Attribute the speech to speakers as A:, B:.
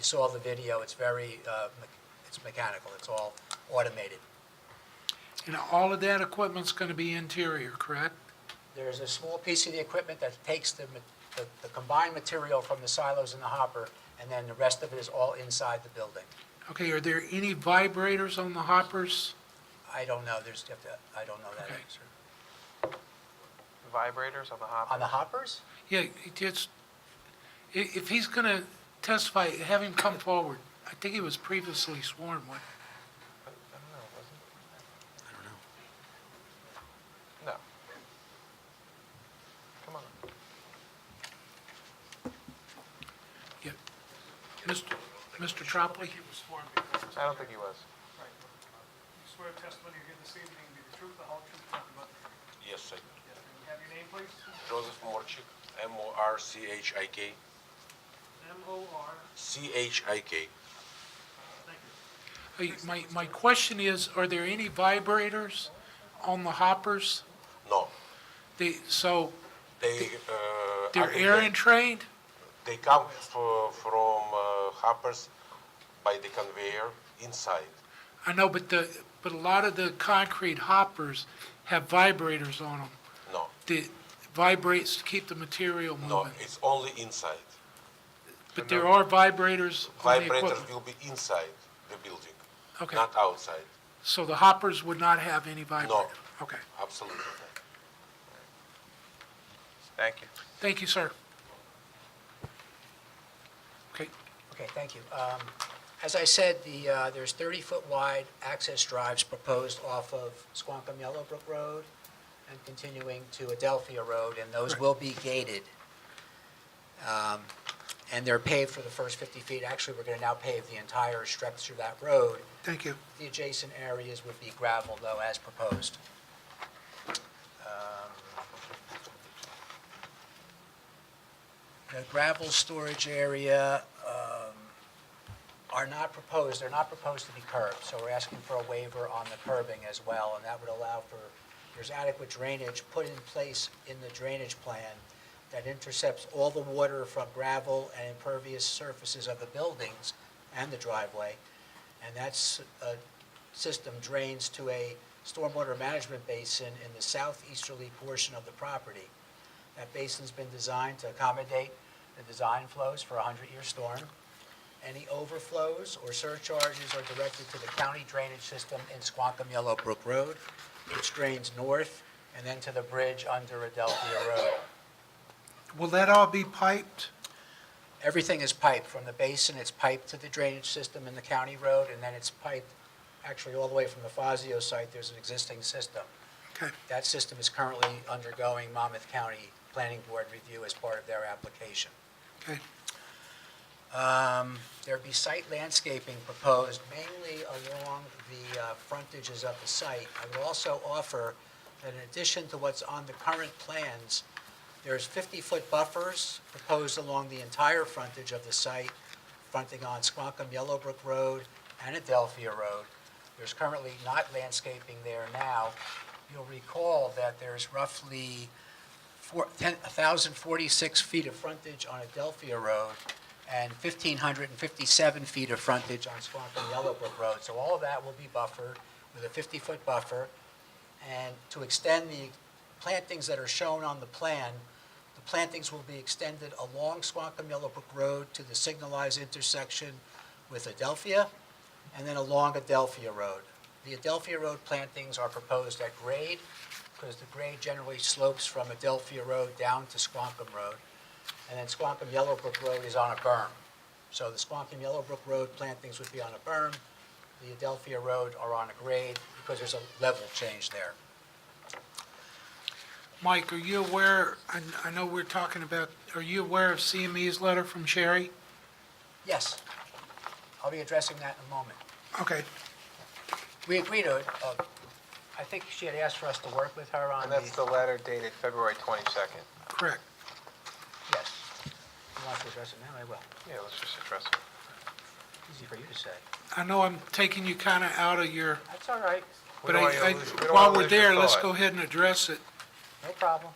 A: saw the video, it's very, uh, me- it's mechanical, it's all automated.
B: And all of that equipment's going to be interior, correct?
A: There's a small piece of the equipment that takes the, ma- the the combined material from the silos and the hopper, and then the rest of it is all inside the building.
B: Okay, are there any vibrators on the hoppers?
A: I don't know, there's, you have to- I don't know that
B: Okay.
A: answer.
C: Vibrators on the hopper.
A: On the hoppers?
B: Yeah, it just, i- if he's going to testify, have him come forward. I think he was previously sworn one.
C: I don't know, was it? I don't know. No. Come on.
B: Yeah. Mr. Mr. Tropoli?
D: He was sworn before.
C: I don't think he was.
D: Right. You swear testimony you're here this evening will be the truth, the whole truth, nothing but the truth.
E: Yes, I
D: Yes, may we have your name, please?
E: Joseph Morchik, M-O-R-C-H-I-K,
D: M-O-R,
E: C-H-I-K.
D: thank you.
B: Hey, My, my question is, are there any vibrators on the hoppers?
E: No,
B: They, so
E: they, uh, I
B: they're
E: think
B: air entrained?
E: They they come fro- from uh, Harper's by the conveyor inside.
B: I know, but the, but a lot of the concrete hoppers have vibrators on them.
E: No,
B: that vibrates to keep the material
E: no,
B: moving.
E: it's only inside.
B: But there are vibrators on the
E: Vibrators
B: equipment.
E: will be inside the building,
B: Okay,
E: not outside,
B: so the hoppers would not have any vibrator? Okay,
E: absolutely not.
C: Thank you.
B: thank you, sir. Okay,
A: Okay, thank you. Um, As I said, the, uh, there's 30-foot wide access drives proposed off of Squonkam Yellowbrook Road and continuing to Adelphia Road, and those will be gated. Um, And they're paved for the first 50 feet. Actually, we're going to now pave the entire stretch through that road.
B: thank you.
A: The adjacent areas would be gravel, though, as proposed. Um, The gravel storage area um, are not proposed, they're not proposed to be curbed, so we're asking for a waiver on the curbing as well, and that would allow for, there's adequate drainage put in place in the drainage plan that intercepts all the water from gravel and impervious surfaces of the buildings and the driveway, and that's uh system drains to a stormwater management basin in the southeasterly portion of the property. That basin's been designed to accommodate the design flows for a 100-year storm. Any overflows or surcharges are directed to the county drainage system in Squonkam Yellowbrook Road, which drains north and then to the bridge under Adelphia Road.
B: Will that all be piped?
A: Everything is piped, from the basin, it's piped to the drainage system in the county road, and then it's piped, actually, all the way from the Fazio site, there's an existing system.
B: Okay,
A: That system is currently undergoing Monmouth County Planning Board review as part of their application.
B: okay.
A: Um, There'd be site landscaping proposed mainly along the uh, frontages of the site. I would also offer that in addition to what's on the current plans, there's 50-foot buffers proposed along the entire frontage of the site, fronting on Squonkam Yellowbrook Road and Adelphia Road. There's currently not landscaping there now. You'll recall that there's roughly four- 10 1,046 feet of frontage on Adelphia Road and 1,557 feet of frontage on Squonkam Yellowbrook Road. So all of that will be buffered with a 50-foot buffer. And to extend the plantings that are shown on the plan, the plantings will be extended along Squonkam Yellowbrook Road to the signalized intersection with Adelphia and then along Adelphia Road. The Adelphia Road plantings are proposed at grade because the grade generally slopes from Adelphia Road down to Squonkam Road. And then Squonkam Yellowbrook Road is on a berm. So the Squonkam Yellowbrook Road plantings would be on a berm. The Adelphia Road are on a grade because there's a level change there.
B: Mike, are you aware, I, I know we're talking about, are you aware of CME's letter from Sherry?
A: Yes, I'll be addressing that in a moment.
B: Okay,
A: We agreed to, it, uh, I think she had asked for us to work with her on
C: And
A: the,
C: that's the letter dated February 22nd.
B: correct.
A: yes. You want to address it now? I will.
C: Yeah, let's just address it.
A: Easy for you to say.
B: I know I'm taking you kind of out of your,
A: That's all right,
C: We
B: but
C: don't
B: I,
C: want you to
B: I,
C: lose- we don't
B: while
C: want to
B: we're
C: lose your
B: there, let's
C: thought.
B: go ahead and address it.
A: no problem.